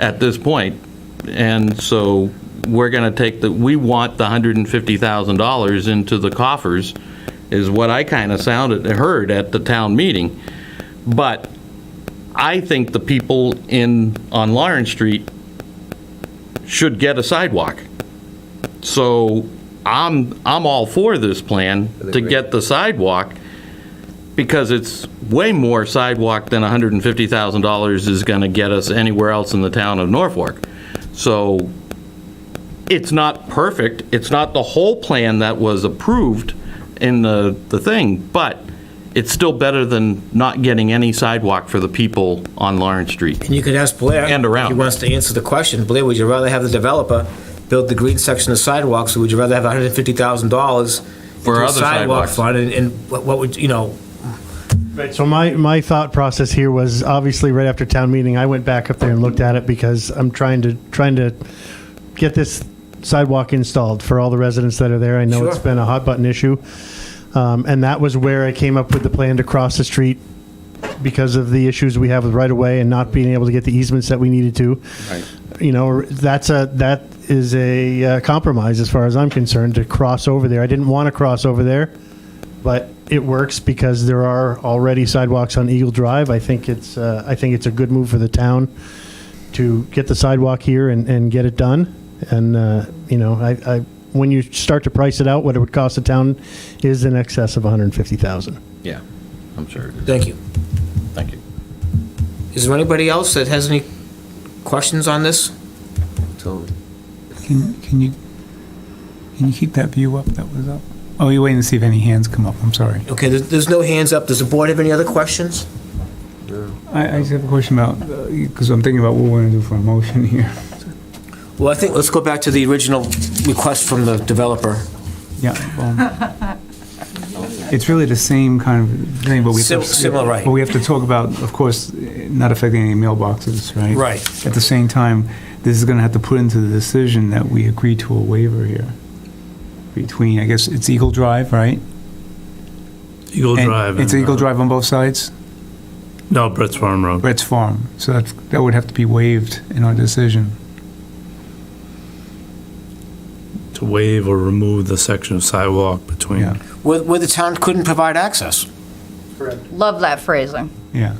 at this point. And so we're going to take the, we want the $150,000 into the coffers, is what I kind of sounded, heard at the town meeting. But I think the people in, on Lawrence Street should get a sidewalk. So I'm, I'm all for this plan to get the sidewalk because it's way more sidewalk than $150,000 is going to get us anywhere else in the town of Norfolk. So it's not perfect, it's not the whole plan that was approved in the, the thing, but it's still better than not getting any sidewalk for the people on Lawrence Street. And you could ask Blair. And around. He wants to answer the question. Blair, would you rather have the developer build the green section of sidewalks, or would you rather have $150,000 For into a other sidewalk sidewalks. fund? And, and what what would, you know, Right, so my, my thought process here was obviously right after town meeting, I went back up there and looked at it because I'm trying to, trying to get this sidewalk installed for all the residents that are there. I know it's Sure. been a hot button issue. Um, and that was where I came up with the plan to cross the street because of the issues we have with right of way and not being able to get the easements that we needed to. You know, that's a, that is a uh, compromise as far as I'm concerned to cross over there. I didn't want to cross over there but it works because there are already sidewalks on Eagle Drive. I think it's, uh, I think it's a good move for the town to get the sidewalk here and, and get it done. And, uh, you know, I, I, when you start to price it out, what it would cost the town is in excess of 150,000. Yeah, I'm sure. thank you. Thank you. Is there anybody else that has any questions on this? So, Can, can you, can you keep that view up that was up? Oh, you're waiting to see if any hands come up, I'm sorry. Okay, there's, there's no hands up. Does the board have any other questions? I, I just have a question about, because I'm thinking about what we're gonna do for a motion here. Well, I think, let's go back to the original request from the developer. Yeah. well, It's really the same kind of thing, but we. Sim- similar, right. But we have to talk about, of course, eh, not affecting any mailboxes, right? Right. At the same time, this is gonna have to put into the decision that we agree to a waiver here. Between, I guess, it's Eagle Drive, right? Eagle And Drive. It's and, Eagle uh, Drive on both sides? No, Brett's Farm Road. Brett's Farm, so that's, that would have to be waived in our decision. To waive or remove the section of sidewalk Yeah. between. Where, where the town couldn't provide access. Love that phrasing. Yeah.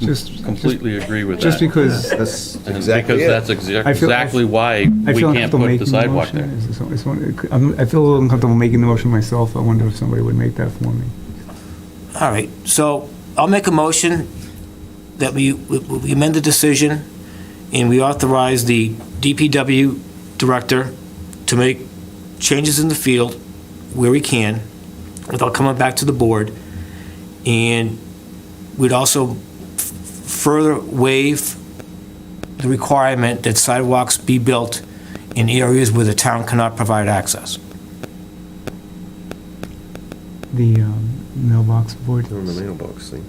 Just, Completely agree with that. just because That's And exactly Because it. that's exa- I feel- I- exactly why I we feel can't put uncomfortable the making the sidewalk motion. there. Is this- is one- I'm- I feel a little uncomfortable making the motion myself. I wonder if somebody would make that for me. All right, so I'll make a motion that we we amend the decision and we authorize the DPW director to make changes in the field where he can without coming back to the board. And we'd also f- further waive the requirement that sidewalks be built in areas where the town cannot provide access. The um, mailbox board. On the mailbox thing.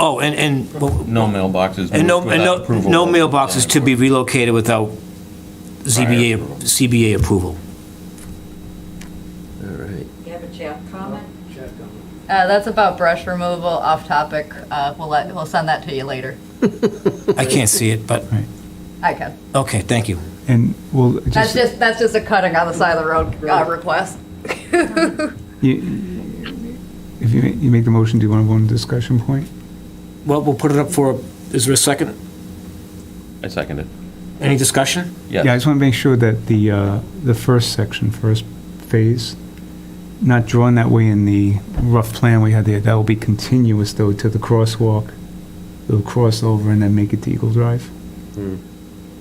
Oh, and, and well, No mailboxes And no, moved and without no, approval. no mailboxes to be relocated without ZBA, approval. CBA approval. All right. You have a chat comment? Uh, that's about brush removal, off topic. Uh, we'll let, we'll send that to you later. I can't see it, but, I can. okay, thank you. And well, That's just, just, that's just a cutting on the side of the road, uh, request. you- if you, ma- you make the motion, do you want to go into discussion point? Well, we'll put it up for, is there a second? I second it. Any discussion? Yeah, I Yes. just want to make sure that the, uh, the first section, first phase, not drawn that way in the rough plan we had there, that will be continuous though to the crosswalk. It'll cross over and then make it to Eagle Drive.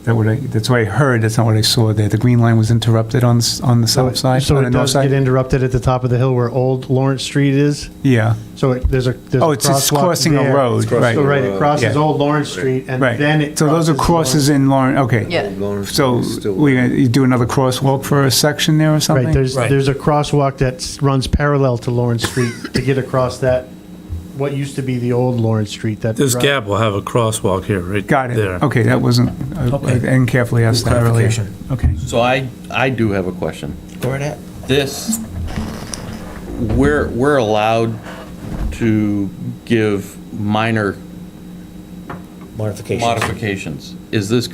That what I, that's what I heard, that's not what I saw there. The green line was interrupted on, s- on the south side, So on the it north does get side? interrupted at the top of the hill where Old Lawrence Street is. Yeah, So it, there's a, there's a crosswalk there. Oh, it's just crossing a road, It's crossing So right, right, it crosses Yeah. Old Lawrence Street and right. then it. So those are crosses in Lawrence, okay. Yeah. Lawrence So is still- we're gonna, you do another crosswalk for a section there or something? Right, there's, Right. there's a crosswalk that s- runs parallel to Lawrence Street to get across that, what used to be the old Lawrence Street that. This run- gap will have a crosswalk here, right? Got it. There. Okay, that wasn't, I I Okay. didn't carefully asked that earlier. Clarification. Okay. So I, I do have a question. Go right ahead. This, we're, we're allowed to give minor modifications. modifications. Is this